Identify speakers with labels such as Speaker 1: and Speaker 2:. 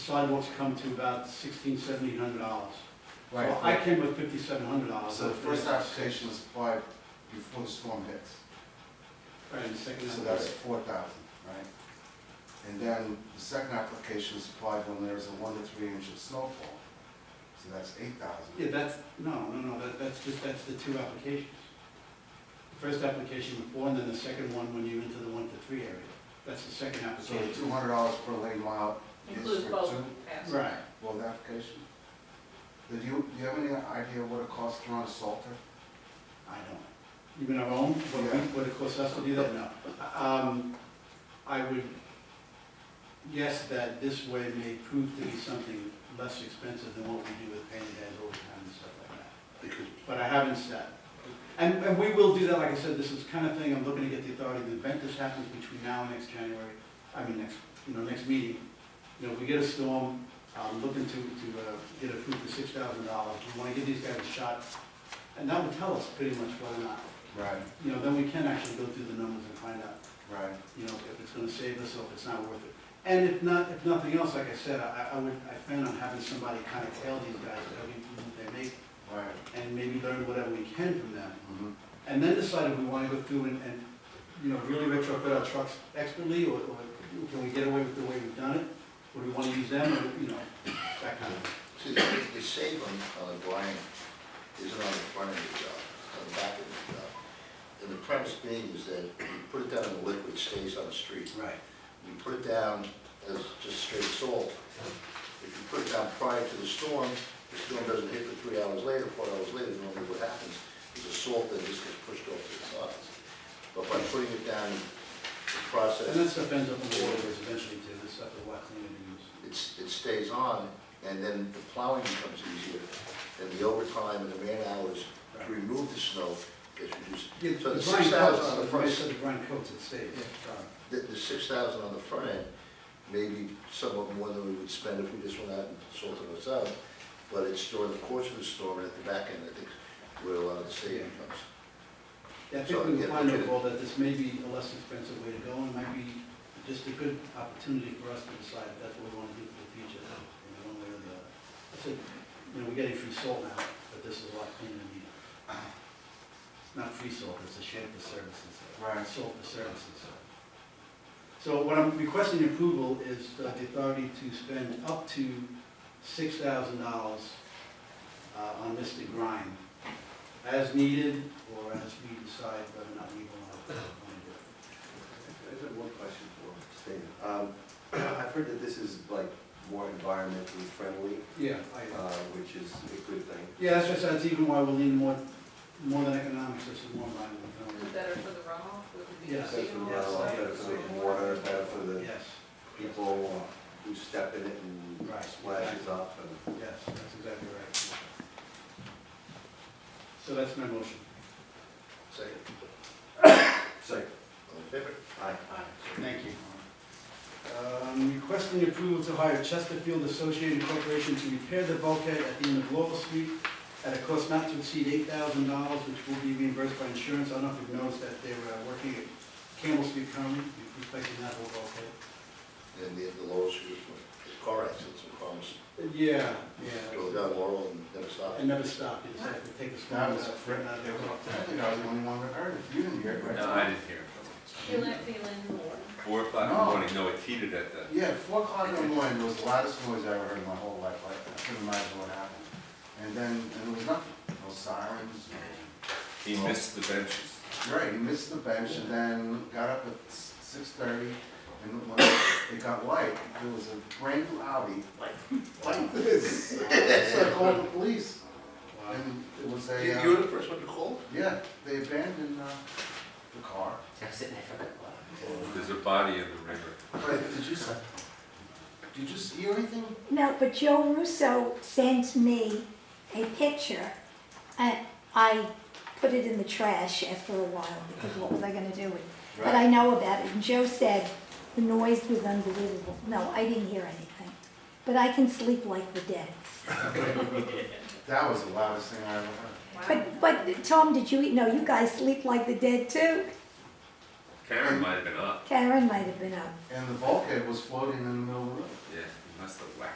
Speaker 1: sidewalks come to about sixteen, seventeen hundred dollars. Well, I
Speaker 2: Right,
Speaker 1: came with fifty-seven hundred dollars.
Speaker 2: Oh, so the first application was applied before the storm hits,
Speaker 1: Right, and the second.
Speaker 2: so that's four thousand, right? And then the second application is applied when there's a one to three inch of snowfall, so that's eight
Speaker 1: Yeah,
Speaker 2: thousand.
Speaker 1: that's, no, no, no, that, that's just, that's the two applications. First application before, and then the second one when you're into the one to three area. That's the second
Speaker 2: So the two
Speaker 1: application.
Speaker 2: hundred dollars per lane mile is
Speaker 3: Includes
Speaker 2: for
Speaker 3: both
Speaker 2: two,
Speaker 3: passes.
Speaker 1: Right.
Speaker 2: both application? Did you, do you have any idea what it costs to run a Salter?
Speaker 1: I don't. Even our own, what we,
Speaker 2: Yeah.
Speaker 1: what it costs us to do that, no. Um, I would guess that this way may prove to be something less expensive than what we do with painted heads all the time and stuff like that. But I haven't said. And, and we will do that, like I said, this is kind of thing, I'm looking to get the authority, the event this happens between now and next January, I mean, next, you know, next meeting. You know, if we get a storm, I'm looking to, to, uh, get approved for six thousand dollars, we wanna give these guys a shot. And that will tell us pretty much whether or not,
Speaker 2: Right,
Speaker 1: you know, then we can actually go through the numbers and find out,
Speaker 2: right.
Speaker 1: you know, if it's gonna save us or if it's not worth it. And if not, if nothing else, like I said, I, I would, I plan on having somebody kind of tell these guys every improvement they make,
Speaker 2: Right.
Speaker 1: and maybe learn whatever we can from them
Speaker 2: mhm.
Speaker 1: and then decide if we want to go through and, and, you know, really retrofit our trucks expertly, or, or can we get away with the way we've done it? Or do we want to use them, or, you know, that kind of,
Speaker 4: See, the the save on, on the blind isn't on the front of the job, it's on the back of the job. And the premise being is that you put it down in the liquid, stays on the street.
Speaker 1: right,
Speaker 4: You put it down as just straight salt. If you put it down prior to the storm, the storm doesn't hit for three hours later, four hours later, normally what happens is the salt then just gets pushed off to the sides. But by putting it down, the process.
Speaker 1: and that stuff ends up in the waterways eventually too, this stuff that wax cleaner use.
Speaker 4: it's, it stays on, and then the plowing becomes easier, and the overtime and the man hours
Speaker 1: Right.
Speaker 4: to remove the snow gets reduced.
Speaker 1: Yeah,
Speaker 4: So the
Speaker 1: the brine
Speaker 4: six thousand
Speaker 1: coats,
Speaker 4: on the
Speaker 1: the way I said,
Speaker 4: front,
Speaker 1: the brine coats, it stays.
Speaker 4: Yeah.
Speaker 1: Uh,
Speaker 4: the, the six thousand on the front end, maybe somewhat more than we would spend if we just went out and sorted those out, but it's during the course of the storm, and at the back end, I think, where a lot of the saving comes.
Speaker 1: Yeah, I
Speaker 4: So,
Speaker 1: think we
Speaker 4: yeah,
Speaker 1: find
Speaker 4: okay.
Speaker 1: overall that this may be a less expensive way to go, and might be just a good opportunity for us to decide if that's what we want to do for the future, in one way or the other. I said, you know, we're getting free salt now, but this is a lot cleaner than you. Not free salt, it's a shed for services.
Speaker 2: Right.
Speaker 1: Salt for services. So what I'm requesting approval is uh, the authority to spend up to six thousand dollars uh, on Mr. Grime as needed, or as we decide whether or not we want to do
Speaker 5: I just have one question for Stan. Um, I've heard that this is like more environmentally friendly,
Speaker 1: it. Yeah. I-
Speaker 5: uh, which is a good thing.
Speaker 1: Yeah, that's just, that's even why we're leaning more, more than economics, this is more environmental.
Speaker 3: Is it Better for the runoff, would it be
Speaker 5: Better
Speaker 1: Yeah.
Speaker 5: for the
Speaker 3: seasonal?
Speaker 5: runoff, better for the water, better for the
Speaker 1: Yes,
Speaker 5: people who step in it and
Speaker 1: Right.
Speaker 5: splashes up and.
Speaker 1: yes, that's exactly right. So that's my motion.
Speaker 4: Second,
Speaker 5: Second,
Speaker 4: all in favor?
Speaker 5: aye.
Speaker 1: Thank you. Um, Requesting approval to hire Chesterfield Associated Corporation to repair the bulkhead at the end of Laurel Street at a cost not to exceed eight thousand dollars, which will be reimbursed by insurance. I don't know if you've noticed that they're uh, working at Campbell Street currently, replacing that whole bulkhead.
Speaker 4: And the, the lowest, was the car accidents and cars,
Speaker 1: Yeah,
Speaker 4: go
Speaker 1: yeah.
Speaker 4: down Laurel and never stop.
Speaker 1: It never stopped, it just had to take a uh, stop.
Speaker 2: That was correct. I think I was the only one that heard it. You didn't hear it, right?
Speaker 6: No, I didn't hear it.
Speaker 3: Feel it, feel it in the water.
Speaker 6: Four o'clock in the
Speaker 2: No.
Speaker 6: morning, no, it teetered at the,
Speaker 2: Yeah, four o'clock in the morning was the loudest noise I ever heard in my whole life, like, I couldn't imagine what happened. And then, and there was nothing, no sirens, no,
Speaker 6: he missed the benches.
Speaker 2: right, he missed the bench and then got up at six thirty, and when it got light, there was a brand new Audi, like, like this. So I called the police, and it was
Speaker 4: You,
Speaker 2: a,
Speaker 4: you were
Speaker 2: uh,
Speaker 4: the first one to call?
Speaker 2: yeah, they abandoned, uh, the car.
Speaker 6: There's a body in the river.
Speaker 2: But did you, s- did you see anything?
Speaker 7: No, but Joe Russo sent me a picture. I, I put it in the trash after a while because what was I going to do with it? But I know about it. And Joe said the noise was unbelievable. No, I didn't hear anything. But I can sleep like the dead.
Speaker 2: That was the loudest thing I ever heard.
Speaker 3: Wow.
Speaker 7: But, but Tom, did you eat? No, you guys sleep like the dead too.
Speaker 6: Karen might have been up,
Speaker 7: Karen might have been up.
Speaker 2: And the bulkhead was floating in the middle of the road.
Speaker 6: yeah, he must have whacked